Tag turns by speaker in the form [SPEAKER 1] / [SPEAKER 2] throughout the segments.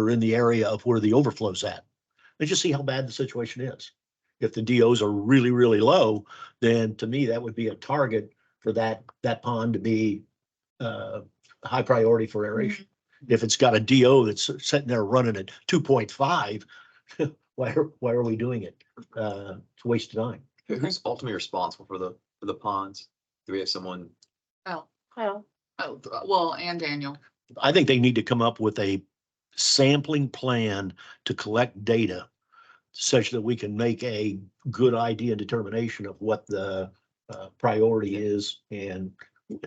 [SPEAKER 1] or in the area of where the overflow's at. And just see how bad the situation is. If the DOs are really, really low, then to me, that would be a target for that, that pond to be uh, high priority for aeration. If it's got a DO that's sitting there running at two point five, why, are- why are we doing it? Uh, it's a waste of time.
[SPEAKER 2] Who- Who's ultimately responsible for the, for the ponds? Do we have someone?
[SPEAKER 3] Oh,
[SPEAKER 4] Well,
[SPEAKER 3] oh, th- well, and Daniel.
[SPEAKER 1] I think they need to come up with a sampling plan to collect data such that we can make a good idea and determination of what the uh, priority is. And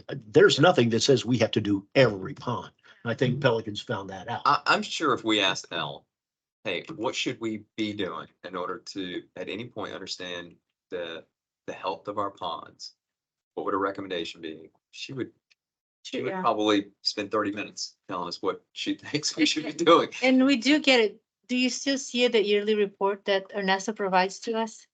[SPEAKER 1] uh, there's nothing that says we have to do every pond. And I
[SPEAKER 4] Mm-hmm.
[SPEAKER 1] think Pelican's found that out.
[SPEAKER 4] Uh,
[SPEAKER 2] I, I'm sure if we asked Al, hey, what should we be doing in order to, at any point, understand the, the health of our ponds? What would a recommendation be? She would, she would
[SPEAKER 4] yeah,
[SPEAKER 2] probably spend thirty minutes telling us what she thinks we should be doing.
[SPEAKER 4] and we do get it. Do you still see the yearly report that Ernesto provides to us?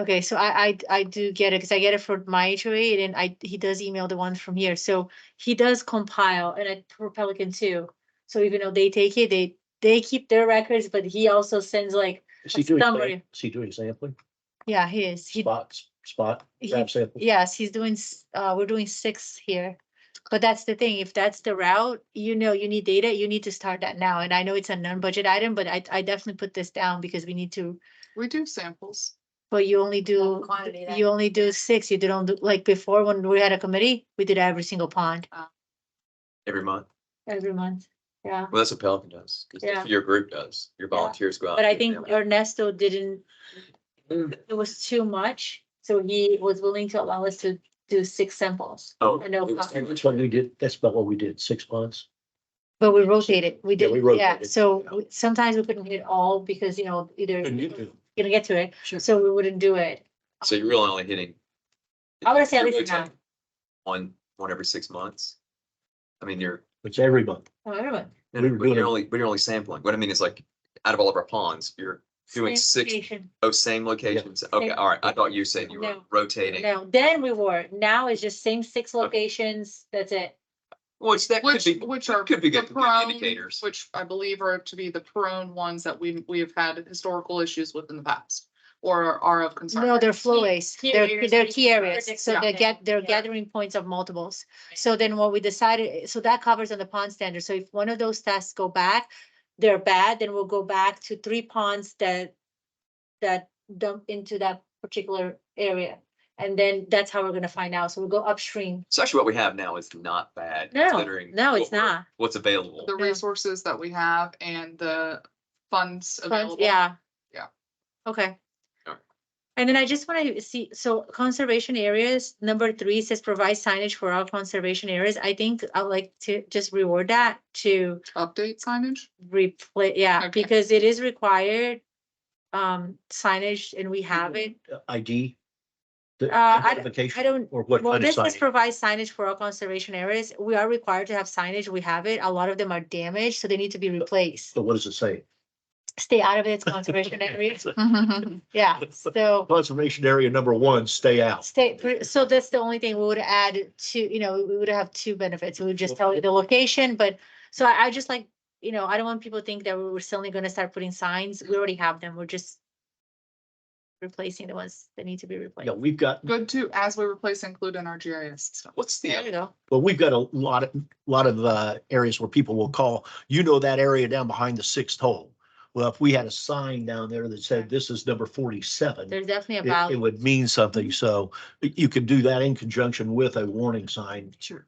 [SPEAKER 4] Okay, so I, I, I do get it, because I get it for my HOA, and I, he does email the one from here, so he does compile, and I, for Pelican too. So even though they take it, they, they keep their records, but he also sends like,
[SPEAKER 1] Is he doing, sam-
[SPEAKER 4] Summary.
[SPEAKER 1] is he doing sampling?
[SPEAKER 4] yeah, he is, he,
[SPEAKER 1] Spots, spot,
[SPEAKER 4] He-
[SPEAKER 1] grab sample?
[SPEAKER 4] yes, he's doing, s- uh, we're doing six here. But that's the thing, if that's the route, you know, you need data, you need to start that now, and I know it's a non-budget item, but I, I definitely put this down because we need to
[SPEAKER 3] We do samples.
[SPEAKER 4] But you only do,
[SPEAKER 3] quantity then.
[SPEAKER 4] you only do six, you don't do, like before when we had a committee, we did every single pond
[SPEAKER 2] Every month.
[SPEAKER 4] every month. Yeah,
[SPEAKER 2] Well, that's what Pelican does. 'cause that's what
[SPEAKER 4] Yeah.
[SPEAKER 2] Your group does. Your
[SPEAKER 4] Yeah.
[SPEAKER 2] volunteers go out.
[SPEAKER 4] but I
[SPEAKER 2] and do
[SPEAKER 4] think
[SPEAKER 2] them.
[SPEAKER 4] Ernesto didn't,
[SPEAKER 2] Mm.
[SPEAKER 4] it was too much, so he was willing to allow us to do six samples.
[SPEAKER 2] Oh,
[SPEAKER 4] I know
[SPEAKER 2] it was-
[SPEAKER 4] Pelican-
[SPEAKER 1] That's what we did, that's about what we did, six ponds.
[SPEAKER 4] But we rotated, we
[SPEAKER 1] Yeah,
[SPEAKER 4] did,
[SPEAKER 1] we
[SPEAKER 4] yeah,
[SPEAKER 1] rotated,
[SPEAKER 4] so
[SPEAKER 1] yeah.
[SPEAKER 4] we- sometimes we couldn't hit all because, you know, either,
[SPEAKER 1] Well,
[SPEAKER 4] gonna get to it,
[SPEAKER 3] Sure.
[SPEAKER 4] so we wouldn't do it.
[SPEAKER 2] So you're really only hitting.
[SPEAKER 4] I would say at
[SPEAKER 2] you're
[SPEAKER 4] least
[SPEAKER 2] rotating
[SPEAKER 4] nine.
[SPEAKER 2] One, one every six months. I mean, you're,
[SPEAKER 1] It's every month.
[SPEAKER 4] Oh, everyone.
[SPEAKER 2] no,
[SPEAKER 1] We
[SPEAKER 2] no,
[SPEAKER 1] were
[SPEAKER 2] but
[SPEAKER 1] doing-
[SPEAKER 2] you're only, but you're only sampling. What I mean is like, out of all of our ponds, you're doing
[SPEAKER 4] Same
[SPEAKER 2] six,
[SPEAKER 4] location.
[SPEAKER 2] oh, same locations. Okay, all right. I thought you were saying you were
[SPEAKER 4] No.
[SPEAKER 2] rotating,
[SPEAKER 4] No, then we were, now it's just same six locations, that's it.
[SPEAKER 2] which that could
[SPEAKER 3] Which,
[SPEAKER 2] be,
[SPEAKER 3] which are.
[SPEAKER 2] that could be
[SPEAKER 3] the
[SPEAKER 2] good good
[SPEAKER 3] prone-
[SPEAKER 2] indicators.
[SPEAKER 3] Which I believe are to be the prone ones that we, we have had historical issues with in the past or are of concern.
[SPEAKER 4] No, they're flowways,
[SPEAKER 5] key
[SPEAKER 4] they're,
[SPEAKER 5] areas
[SPEAKER 4] they're
[SPEAKER 5] that you
[SPEAKER 4] key
[SPEAKER 5] can
[SPEAKER 4] areas,
[SPEAKER 5] predict
[SPEAKER 4] so they're
[SPEAKER 5] something.
[SPEAKER 4] get, they're
[SPEAKER 5] Yeah.
[SPEAKER 4] gathering points of multiples. So then what we decided, eh, so that covers on the pond standard, so if one of those tests go back, they're bad, then we'll go back to three ponds that. That dump into that particular area, and then that's how we're gonna find out, so we'll go upstream.
[SPEAKER 2] So actually what we have now is not bad.
[SPEAKER 4] No,
[SPEAKER 2] considering
[SPEAKER 4] no,
[SPEAKER 2] what
[SPEAKER 4] it's
[SPEAKER 2] we're-
[SPEAKER 4] not,
[SPEAKER 2] What's available.
[SPEAKER 3] The resources that we have and the funds
[SPEAKER 4] Funds-
[SPEAKER 3] available.
[SPEAKER 4] yeah.
[SPEAKER 3] Yeah.
[SPEAKER 4] Okay.
[SPEAKER 2] Alright.
[SPEAKER 4] And then I just want to see, so conservation areas, number three says provide signage for all conservation areas. I think I'd like to just reward that to
[SPEAKER 3] Update signage.
[SPEAKER 4] replace, yeah,
[SPEAKER 3] Okay.
[SPEAKER 4] because it is required. Um, signage and we
[SPEAKER 3] Mm-hmm.
[SPEAKER 4] have it.
[SPEAKER 1] ID? Uh, the
[SPEAKER 4] Uh, I- I
[SPEAKER 1] identification,
[SPEAKER 4] I don't-
[SPEAKER 1] Or what
[SPEAKER 4] Well,
[SPEAKER 1] kind of
[SPEAKER 4] this is
[SPEAKER 1] sign?
[SPEAKER 4] provide signage for all conservation areas. We are required to have signage. We have it. A lot of them are damaged, so they need to be replaced.
[SPEAKER 1] But what does it say?
[SPEAKER 4] Stay out of it, it's conservation areas.
[SPEAKER 3] Well,
[SPEAKER 4] Yeah, so.
[SPEAKER 1] Conservation area number one, stay out.
[SPEAKER 4] State, pr- so that's the only thing we would add to, you know, we would have two benefits. We would just tell you the location, but so I, I just like, you know, I don't want people to think that we we're suddenly gonna start putting signs. We already have them. We're just replacing the ones that need to be replaced.
[SPEAKER 1] Yeah, we've got,
[SPEAKER 3] Good too, as we replace include in our GIS stuff.
[SPEAKER 2] What's the,
[SPEAKER 4] There
[SPEAKER 2] other-
[SPEAKER 4] we go.
[SPEAKER 1] well, we've got a lot of, lot of uh, areas where people will call, you know, that area down behind the sixth hole. Well, if we had a sign down there that said this is number forty-seven, it,
[SPEAKER 4] There's definitely a
[SPEAKER 1] it
[SPEAKER 4] value. Mm-hmm.
[SPEAKER 1] would mean something. So you could do that in conjunction with a warning sign.
[SPEAKER 3] Sure.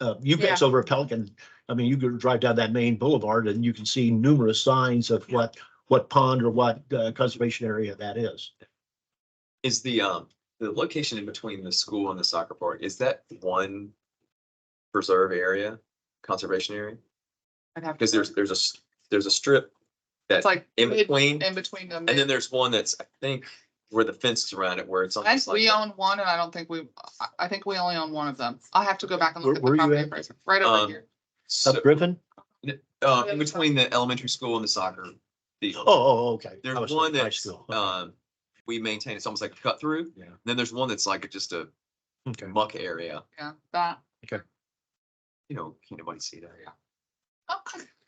[SPEAKER 1] Uh, you guys over at Pelican, I mean, you could drive down that main boulevard and you can see numerous signs of what, what pond or what uh, conservation area that is.
[SPEAKER 2] is the, um, the location in between the school and the soccer park, is that one preserve area, conservation area?
[SPEAKER 3] I'd have to-
[SPEAKER 2] Because there's, there's a, s- there's a strip
[SPEAKER 3] It's
[SPEAKER 2] that's
[SPEAKER 3] like
[SPEAKER 2] in
[SPEAKER 3] mid-
[SPEAKER 2] between,
[SPEAKER 3] in between them.
[SPEAKER 2] and then there's one that's, I think, where the fence is around it, where it's
[SPEAKER 3] I
[SPEAKER 2] almost
[SPEAKER 3] think we
[SPEAKER 2] like. a-
[SPEAKER 3] own one and I don't think we, I, I think we only own one of them. I'll have to go back and
[SPEAKER 1] Where-
[SPEAKER 3] look at
[SPEAKER 1] where
[SPEAKER 3] the
[SPEAKER 1] you
[SPEAKER 3] property
[SPEAKER 1] at?
[SPEAKER 3] appraiser, right
[SPEAKER 2] Um,
[SPEAKER 3] over here.
[SPEAKER 2] so-
[SPEAKER 1] Up Griffin?
[SPEAKER 2] Uh, in between the elementary school and the soccer
[SPEAKER 1] Oh,
[SPEAKER 2] field.
[SPEAKER 1] Oh, oh, okay. I was
[SPEAKER 2] There's
[SPEAKER 1] thinking
[SPEAKER 2] one
[SPEAKER 1] high
[SPEAKER 2] that's,
[SPEAKER 1] school. Okay.
[SPEAKER 2] um, we maintain, it's almost like a cut through.
[SPEAKER 1] Yeah.
[SPEAKER 2] Then there's one that's like just a
[SPEAKER 1] Okay.
[SPEAKER 2] muck area,
[SPEAKER 3] Yeah, that,
[SPEAKER 2] you know, can't nobody see that.
[SPEAKER 3] okay,